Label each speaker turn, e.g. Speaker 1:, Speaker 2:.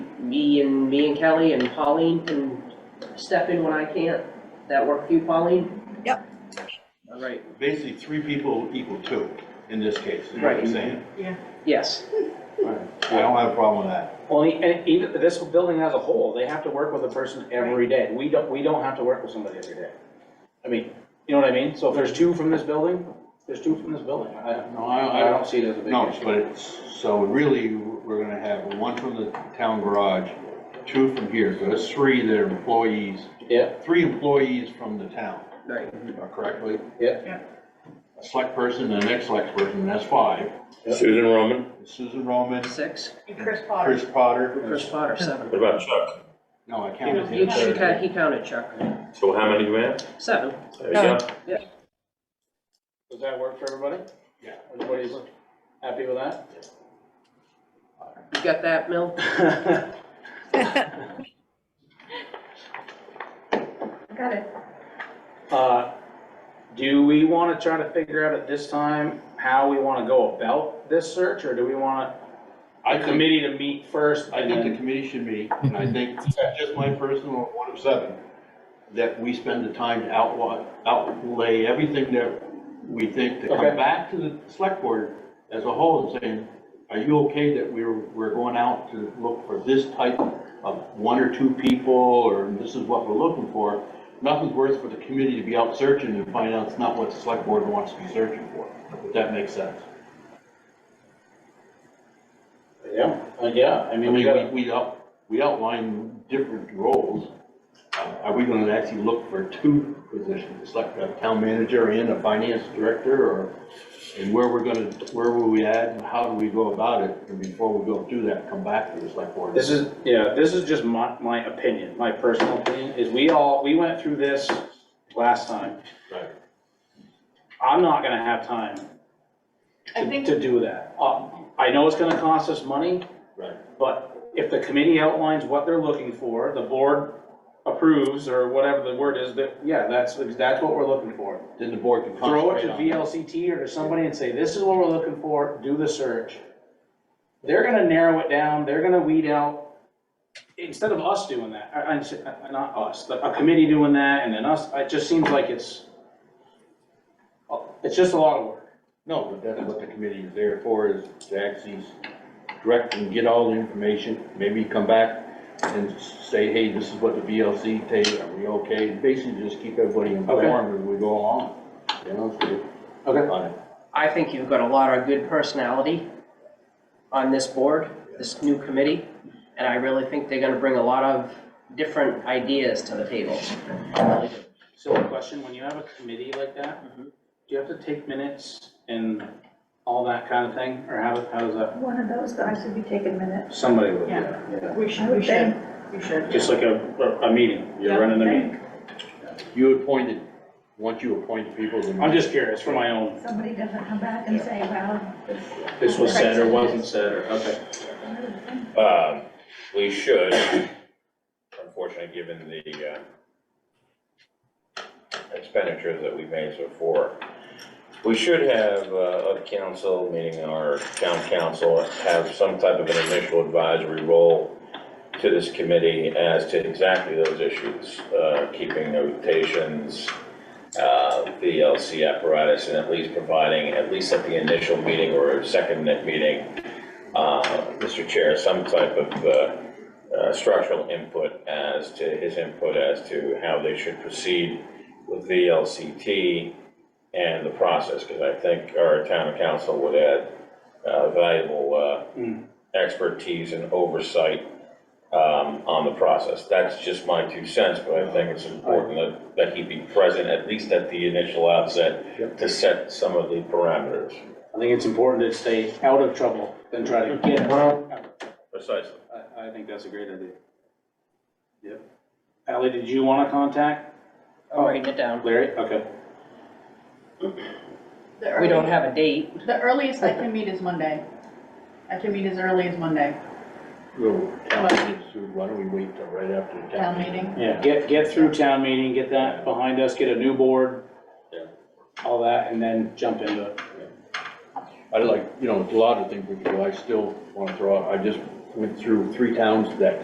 Speaker 1: me and, me and Kelly and Pauline can step in when I can't. That work for you, Pauline?
Speaker 2: Yep.
Speaker 1: All right,
Speaker 3: Basically, three people equal two in this case, is what
Speaker 1: Right.
Speaker 3: you're saying.
Speaker 1: yes.
Speaker 3: I don't have a problem with that.
Speaker 4: Well, and even this building as a whole, they have to work with a person every day. We don't, we don't have to work with somebody every day. I mean, you know what I mean? So if there's two from this building, there's two from this building. I,
Speaker 3: No, I,
Speaker 4: I don't see it as a big
Speaker 3: No,
Speaker 4: issue.
Speaker 3: but it's, so really, we're gonna have one from the town garage, two from here, so that's three that are employees,
Speaker 4: Yeah,
Speaker 3: three employees from the town,
Speaker 1: Right.
Speaker 3: correctly?
Speaker 4: Yeah.
Speaker 2: Yeah.
Speaker 3: A select person and an ex-select person, that's five.
Speaker 5: Susan Roman,
Speaker 3: Susan Roman,
Speaker 1: Six,
Speaker 2: And Chris Potter.
Speaker 3: Chris Potter,
Speaker 1: Chris Potter, seven.
Speaker 5: what about Chuck?
Speaker 3: no, I counted
Speaker 1: He,
Speaker 3: him.
Speaker 1: she ca- he counted Chuck,
Speaker 5: So how many do we have?
Speaker 1: seven.
Speaker 5: There you go.
Speaker 4: does that work for everybody?
Speaker 3: Yeah.
Speaker 4: Everybody's happy with that?
Speaker 1: You got that, Mill?
Speaker 2: Got it.
Speaker 4: Uh, Do we want to try to figure out at this time how we want to go about this search, or do we want
Speaker 3: I
Speaker 4: a
Speaker 3: think,
Speaker 4: committee to meet first?
Speaker 3: I
Speaker 4: and
Speaker 3: think
Speaker 4: then-
Speaker 3: the committee should meet, and I think, that's just my personal, one of seven, that we spend the time to outlaw, outlay everything that we think, to
Speaker 4: Okay.
Speaker 3: come back to the select board as a whole and saying, are you okay that we're, we're going out to look for this type of one or two people, or this is what we're looking for? Nothing's worse for the committee to be out searching and find out it's not what the select board wants to be searching for, if that makes sense.
Speaker 4: Yeah, uh, yeah, I
Speaker 3: I
Speaker 4: mean, we gotta.
Speaker 3: mean, we, we out, we outline different roles. Uh, Are we gonna actually look for two positions, It's like a town manager and a finance director, or, and where we're gonna, where will we add, and how do we go about it? And before we go do that, come back to the select board.
Speaker 4: This is, yeah, this is just my, my opinion, my personal opinion, is we all, we went through this last time.
Speaker 3: Right.
Speaker 4: I'm not gonna have time
Speaker 2: I
Speaker 4: to,
Speaker 2: think-
Speaker 4: to do that. Uh, I know it's gonna cost us money,
Speaker 3: Right,
Speaker 4: but if the committee outlines what they're looking for, the board approves, or whatever the word is, that, yeah, that's, that's what we're looking for.
Speaker 3: then the board can
Speaker 4: Throw it to
Speaker 3: concentrate on.
Speaker 4: VLCT or to somebody and say, this is what we're looking for, do the search. They're gonna narrow it down, they're gonna weed out, instead of us doing that, I, I- not us, but a committee doing that and then us, it just seems like it's, it's just a lot of work.
Speaker 3: No, but that's what the committee is there for, is to actually direct and get all the information, maybe come back and say, hey, this is what the VLC takes, are we okay? And Basically, just keep everybody informed as we go along, you know, so, Uh,
Speaker 4: Okay.
Speaker 3: on it.
Speaker 1: I think you've got a lot of good personality on this board, this new committee, and I really think they're gonna bring a lot of different ideas to the table. I really do.
Speaker 4: Silly question, when you have a committee like that, do
Speaker 1: Mhm.
Speaker 4: you have to take minutes and all that kind of thing, or how, how does that?
Speaker 6: One of those guys would be taking minutes.
Speaker 4: Somebody would,
Speaker 2: Yeah.
Speaker 4: yeah.
Speaker 2: We
Speaker 6: I
Speaker 2: should, we
Speaker 6: would think.
Speaker 2: should, we should.
Speaker 4: Just like a, a- a meeting,
Speaker 2: Yeah,
Speaker 4: you're running the
Speaker 2: I
Speaker 4: meeting.
Speaker 3: You appointed, once you appoint people, then.
Speaker 4: I'm just curious, for my own
Speaker 6: Somebody doesn't come back and say, well, this.
Speaker 4: This was said or wasn't said, or, okay.
Speaker 5: Um, we should, unfortunately, given the, uh, expenditures that we've made so far, we should have, uh, a council, meaning our town council, have some type of an initial advisory role to this committee as to exactly those issues, uh, keeping the rotations, uh, the LC apparatus, and at least providing, at least at the initial meeting or second meeting, uh, Mr. Chair, some type of uh, uh, structural input as to, his input as to how they should proceed with VLCT and the process, because I think our town council would add uh, valuable
Speaker 4: Mm.
Speaker 5: uh, expertise and oversight um, on the process. That's just my two cents, but I think it's important that, that he be present, at least at the initial outset, to set some of the parameters.
Speaker 4: I think it's important to stay out of trouble than try to get out.
Speaker 5: Precisely.
Speaker 4: I, I think that's a great idea. Yep. Ally, did you want to contact
Speaker 1: I'm writing it down.
Speaker 4: Larry? Okay.
Speaker 2: The
Speaker 1: We don't
Speaker 2: early-
Speaker 1: have a date.
Speaker 2: The earliest I can meet is Monday. I can meet as early as Monday,
Speaker 3: Well, town meeting's soon, why don't we wait till right after the
Speaker 2: town meeting.
Speaker 4: Yeah, get, get through town meeting, get that behind us, get a new board.
Speaker 5: Yeah.
Speaker 4: All that, and then jump into it.
Speaker 3: I like, you know, a lot of things we could do, I still wanna throw out, I just went through three towns that